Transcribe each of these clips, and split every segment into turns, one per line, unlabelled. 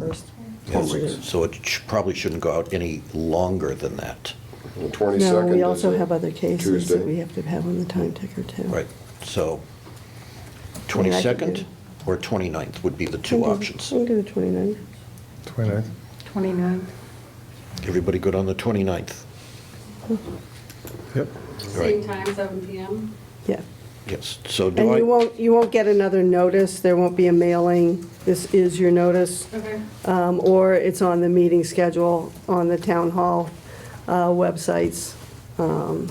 first
Yes,
forwarded.
So it sh- probably shouldn't go out any longer than that.
The 22nd is
No, we also have
a
other cases that
Tuesday.
we have to have on the time ticker too.
Right, so
I mean, I could
22nd
do-
or 29th would be the
I'm
two
good-
options.
I'm good with 29.
29th.
29.
Everybody good on the 29th?
Yep.
Right.
Same time, seven PM.
Yeah.
Yes, so do
And you
I,
won't, you won't get another notice, there won't be a mailing, this is your notice,
Okay.
um, or it's on the meeting schedule on the town hall uh, websites, um,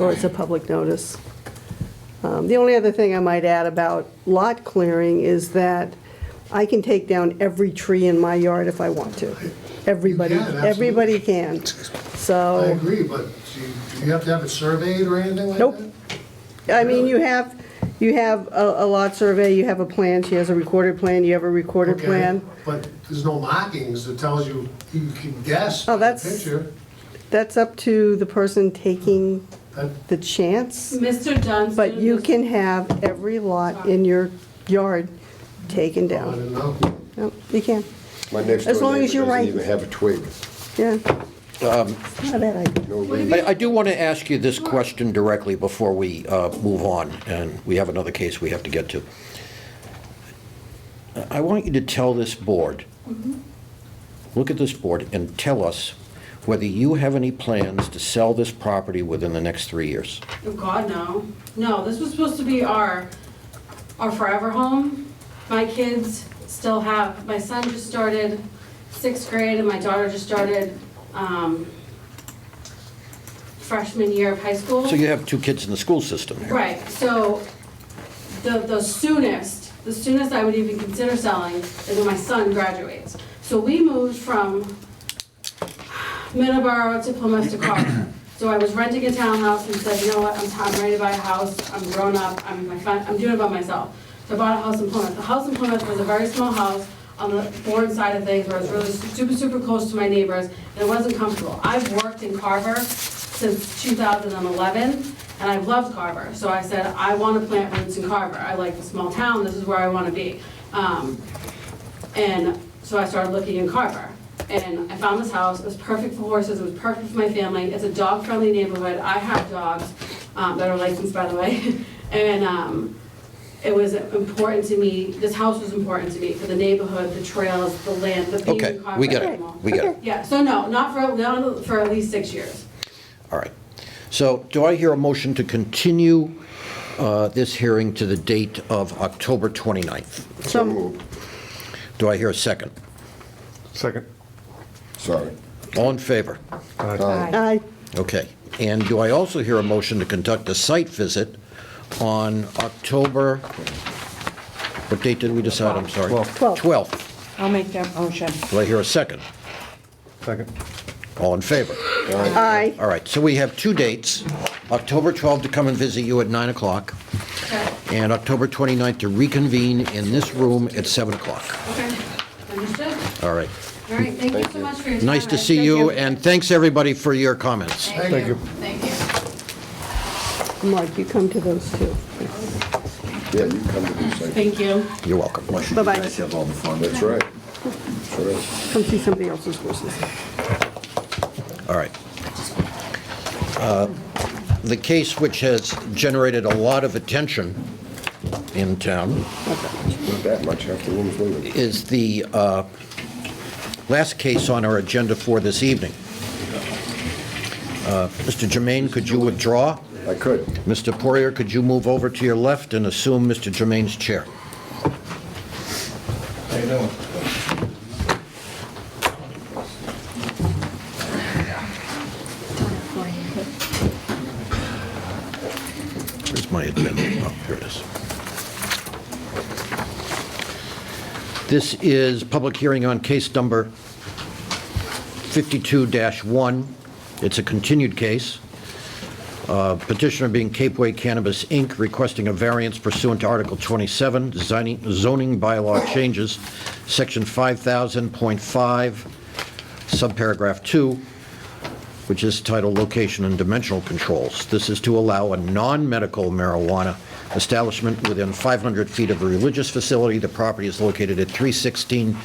or it's a public notice. Um, The only other thing I might add about lot clearing is that I can take down every tree in my yard if I want to. Everybody,
You can, absolutely.
everybody can, so.
I agree, but do you, do you have to have it surveyed or anything like that?
Nope. I mean, you have, you have a a lot survey, you have a plan, she has a recorded plan, you have a recorded
Okay,
plan.
But there's no markings that tells you, you can guess.
Oh,
by the
that's-
Picture,
That's up to the person taking
that,
the chance,
Mr. Johnston.
but you
was-
can have every lot in your yard taken
I
down.
don't know.
Yep, You can,
My next
As
door
long as
neighbor
you're
doesn't
right.
even have a twig.
yeah. It's not a bad idea.
No leaves.
I I do want to ask you this question directly before we uh, move on, and we have another case we have to get to. I want you to tell this board, look at this board, and tell us whether you have any plans to sell this property within the next three years.
Oh, God, no. No, this was supposed to be our, our forever home. My kids still have, my son just started sixth grade and my daughter just started, um, freshman year of high school.
So you have two kids in the school system here.
Right, so the, the soonest, the soonest I would even consider selling is when my son graduates. So we moved from Middleborough to Plymouth to Carver. So I was renting a townhouse and said, you know what, I'm, t- I'm ready to buy a house, I'm grown up, I'm, my fin- I'm doing it by myself. So I bought a house in Plymouth. The house in Plymouth was a very small house on the foreign side of things, where it was really super, super close to my neighbors, and it wasn't comfortable. I've worked in Carver since 2011, and I've loved Carver. So I said, I want to plant roots in Carver. I like the small town, this is where I want to be. Um, and so I started looking in Carver. And I found this house, it was perfect for horses, it was perfect for my family. It's a dog-friendly neighborhood. I have dogs um, that are licensed, by the way. And um, it was important to me, this house was important to me for the neighborhood, the trails, the land, the being
Okay,
in Carver.
we get it,
and all.
we get it.
Yeah, so no, not for, not for at least six years.
All right. So do I hear a motion to continue uh, this hearing to the date of October 29th?
So moved.
Do I hear a second?
Second.
Sorry.
All in favor?
I,
Okay. And do I also hear a motion to conduct a site visit on October, what date did we decide? I'm sorry.
Twelve.
12th.
I'll make that motion.
Do I hear a second?
Second.
All in favor?
I,
All right, so we have two dates, October 12th to come and visit you at 9 o'clock,
Okay,
and October 29th to reconvene in this room at 7 o'clock.
okay, understood.
All right.
All right, thank you so much for your time.
Nice
I
to see
appreciate
you,
it.
and thanks, everybody, for your comments.
Thank you.
Thank you.
Mark, you come to those too.
Yeah, you come to these things.
Thank you.
You're welcome.
Bye-bye.
have all the fun.
That's right. That's right.
Come see somebody else's horses.
All right. Uh, The case which has generated a lot of attention in town
Not that much after room's leaving.
is the uh, last case on our agenda for this evening. Uh, Mr. Jermaine, could you withdraw?
I could.
Mr. Poirier, could you move over to your left and assume Mr. Jermaine's chair?
How you doing?
Where's my agenda? Oh, here it is. This is public hearing on case number 52-1. It's a continued case. Uh, Petitioner being Capeway Cannabis, Inc., requesting a variance pursuant to Article 27, designing- zoning bylaw changes, Section 5000.5, subparagraph 2, which is titled Location and Dimensional Controls. This is to allow a non-medical marijuana establishment within 500 feet of a religious facility. The property is located at 316